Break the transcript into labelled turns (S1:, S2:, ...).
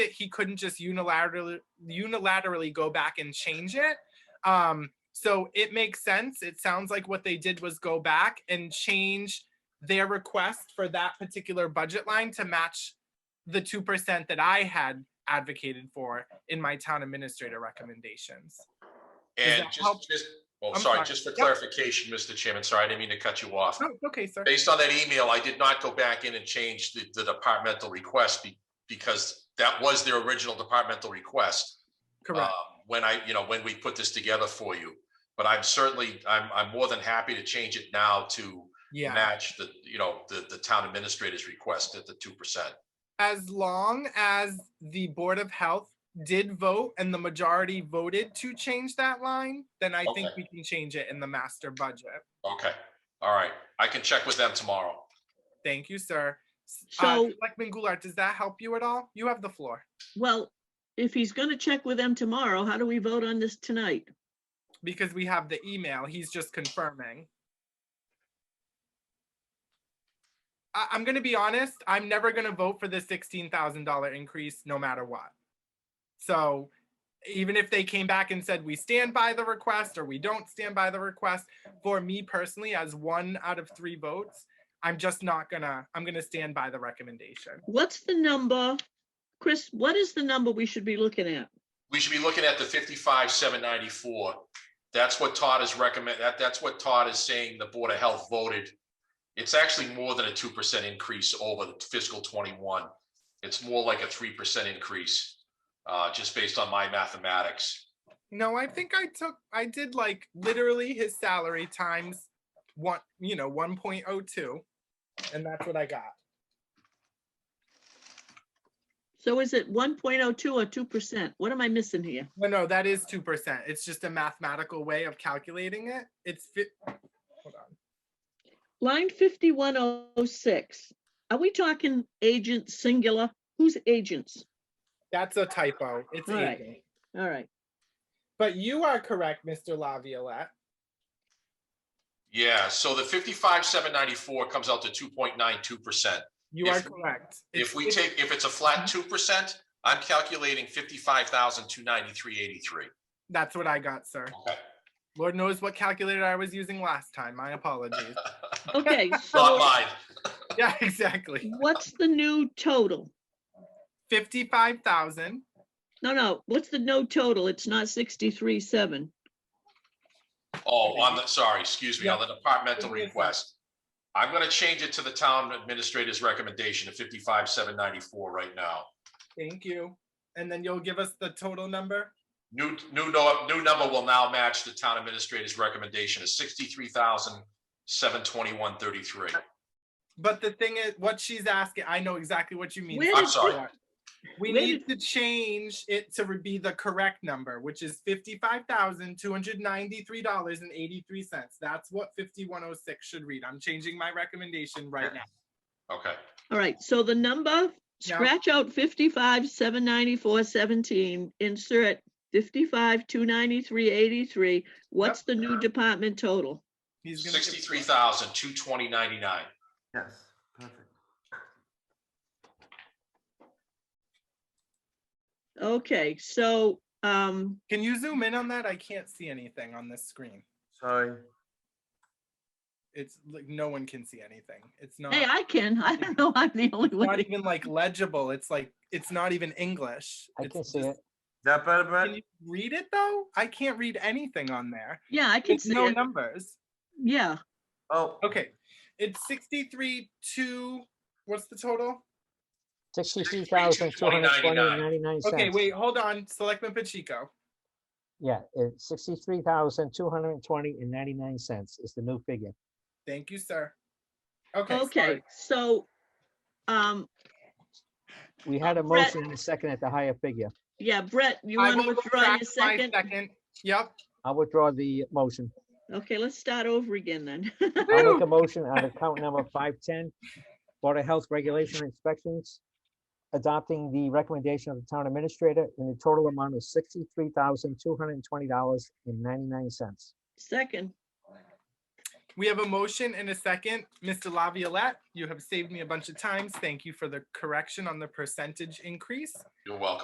S1: that he couldn't just unilaterally unilaterally go back and change it. Um, so it makes sense. It sounds like what they did was go back and change their request for that particular budget line to match the two percent that I had advocated for in my town administrator recommendations.
S2: And
S1: that help?
S2: just, just, well,
S1: I'm
S2: sorry,
S1: sorry.
S2: just for
S1: Yep.
S2: clarification, Mr. Chairman, sorry, I didn't mean to cut you off.
S1: No, it's Oh, okay, sir.
S2: Based on that email, I did not go back in and change the, the departmental request be- because that was their original departmental request.
S1: Correct.
S2: um, When I, you know, when we put this together for you. But I'm certainly, I'm, I'm more than happy to change it now to
S1: Yeah.
S2: match the, you know, the, the town administrator's request at the two percent.
S1: as long as the Board of Health did vote and the majority voted to change that line, then I think
S2: Okay.
S1: we can change it in the master budget.
S2: Okay, all right. I can check with them tomorrow.
S1: Thank you, sir. S- uh,
S3: So,
S1: Selectman Goulart, does that help you at all? You have the floor
S3: well, if he's gonna check with them tomorrow, how do we vote on this tonight?
S1: because we have the email. He's just confirming. I, I'm gonna be honest, I'm never gonna vote for the sixteen thousand dollar increase, no matter what. So even if they came back and said we stand by the request or we don't stand by the request, for me personally, as one out of three votes, I'm just not gonna, I'm gonna stand by the recommendation.
S3: What's the number? Chris, what is the number we should be looking at?
S2: we should be looking at the fifty-five, seven ninety-four. That's what Todd is recommend, that, that's what Todd is saying the Board of Health voted. It's actually more than a two percent increase over the fiscal twenty-one. It's more like a three percent increase, uh, just based on my mathematics.
S1: No, I think I took I did like literally his salary times one, you know, 1.02 and that's what I got.
S3: So is it one point oh two or two percent? What am I missing here?
S1: No, no, that is 2%. It's just a mathematical way of calculating it. It's fi- Hold on.
S3: Line fifty-one oh six. Are we talking agent singular? Who's agents?
S1: That's a typo. It's
S3: All right.
S1: agent.
S3: All right,
S1: But you are correct, Mr. Laviolette.
S2: Yeah, so the fifty-five, seven ninety-four comes out to two point nine two percent.
S1: You
S2: If-
S1: are correct.
S2: If
S1: It's-
S2: we
S1: it's-
S2: take, if it's a flat two percent, I'm calculating fifty-five thousand, two ninety-three, eighty-three.
S1: That's what I got, sir.
S2: Okay.
S1: Lord knows what calculator I was using last time. My apologies.
S3: okay,
S2: Not
S3: so
S2: mine.
S1: yeah, exactly.
S3: what's the new total?
S1: 55,000
S3: No, no, what's the no total? It's not sixty-three seven.
S2: Oh, on the, sorry, excuse me, on the departmental
S1: Give me a sec.
S2: request. I'm gonna change it to the town administrator's recommendation of fifty-five, seven ninety-four right now.
S1: Thank you. And then you'll give us the total number?
S2: New, new, no, new number will now match the town administrator's recommendation of sixty-three thousand, seven twenty-one, thirty-three.
S1: But the thing is, what she's asking, I know exactly what you mean.
S3: Where
S1: Sarah.
S2: did I'm sorry.
S1: We
S3: where
S1: need to change it to re- be the correct number, which is fifty-five thousand, two hundred ninety-three dollars and eighty-three cents. That's what fifty-one oh six should read. I'm changing my recommendation right now.
S2: Okay,
S3: All right, so the number,
S1: Yeah.
S3: scratch out fifty-five, seven ninety-four, seventeen, insert fifty-five, two ninety-three, eighty-three. What's the new department total?
S1: He's gonna give-
S2: sixty-three thousand, two twenty, ninety-nine.
S4: Yes, perfect.
S3: Okay, so, um,
S1: Can you zoom in on that? I can't see anything on this screen.
S4: Sorry.
S1: It's like, no one can see anything. It's not,
S3: hey, I can, I don't know, I'm the only
S1: not
S3: one.
S1: even like legible. It's like, it's not even English.
S5: I
S1: It's
S5: can see
S1: just-
S5: it.
S4: Is that better,
S1: Can
S4: Brett?
S1: you read it though? I can't read anything on there.
S3: Yeah, I can
S1: It's
S3: see
S1: no
S3: it,
S1: numbers.
S3: yeah,
S4: Oh,
S1: Okay, it's sixty-three, two, what's the total?
S5: Sixty-three thousand, two hundred twenty, ninety-nine
S1: Okay,
S5: cents.
S1: wait, hold on, Selectman Pacheco.
S5: Yeah, it's sixty-three thousand, two hundred and twenty and ninety-nine cents is the new figure.
S1: Thank you, sir. Okay,
S3: okay,
S1: sorry.
S3: so, um,
S5: We had a
S3: Brett-
S5: motion and a second at the higher figure.
S3: yeah, Brett, you
S1: I
S3: want to
S1: will
S3: withdraw your
S1: retract my
S3: second?
S1: Yep,
S5: I'll withdraw the motion.
S3: Okay, let's start over again then.
S5: I'll make a motion on account number five-ten, Board of Health Regulation Inspections, adopting the recommendation of the town administrator in the total amount of sixty-three thousand, two hundred and twenty dollars and ninety-nine cents.
S3: Second,
S1: We have a motion and a second. Mr. Laviolette, you have saved me a bunch of times. Thank you for the correction on the percentage increase.
S2: You're welcome.